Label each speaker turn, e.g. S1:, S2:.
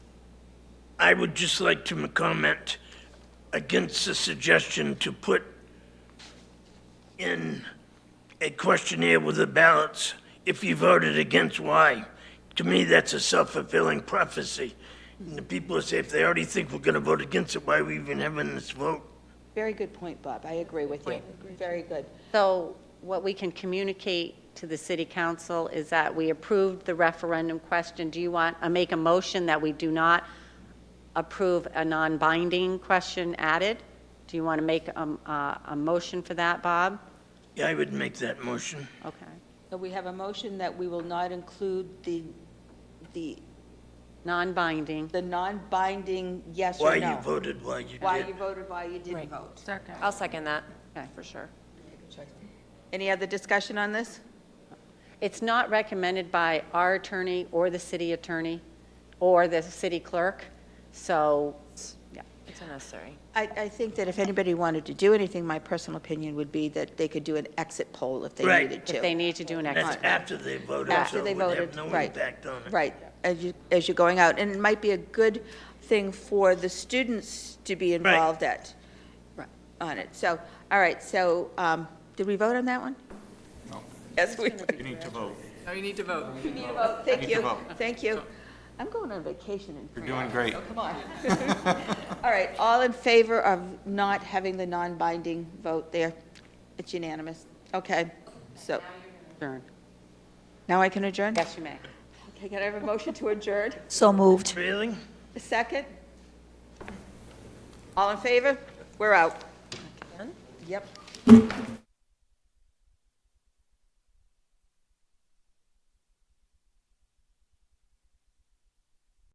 S1: I would just like to comment against the suggestion to put in a questionnaire with the ballots if you voted against why. To me, that's a self-fulfilling prophecy. And the people say, if they already think we're going to vote against it, why are we even having this vote?
S2: Very good point, Bob. I agree with you. Very good.
S3: So what we can communicate to the city council is that we approved the referendum question. Do you want, uh, make a motion that we do not approve a non-binding question added? Do you want to make um, uh, a motion for that, Bob?
S1: Yeah, I would make that motion.
S3: Okay.
S2: So we have a motion that we will not include the, the,
S3: Non-binding.
S2: the non-binding yes
S1: Why
S2: or
S1: you
S2: no.
S1: voted, why you
S2: Why you
S1: did.
S2: voted, why you didn't vote.
S4: Second.
S5: I'll second that,
S3: Okay.
S5: for sure.
S2: Any other discussion on this?
S3: It's not recommended by our attorney or the city attorney or the city clerk, so, yeah.
S5: It's unnecessary.
S2: I, I think that if anybody wanted to do anything, my personal opinion would be that they could do an exit poll if they
S1: Right.
S2: needed to.
S3: If they need to do an exit.
S1: That's after they voted, so
S2: After
S1: it
S2: they
S1: would have
S2: voted,
S1: no
S2: right.
S1: impact on it.
S2: Right, as you, as you're going out, and it might be a good thing for the students to be involved at, on it. So, all right, so, um, did we vote on that one? No. Yes, we,
S6: You need to vote.
S4: No, you need to vote.
S2: thank
S6: need to
S2: you,
S6: vote.
S2: thank you. I'm going on vacation in
S6: You're
S2: France.
S6: doing great.
S2: Come on. All right, all in favor of not having the non-binding vote there? It's unanimous, okay, so,
S3: Adjourn.
S2: now I can adjourn?
S3: Yes, you may.
S2: Okay, can I have a motion to adjourn?
S7: So moved.
S1: Really?
S2: A second? All in favor? We're out. Yep.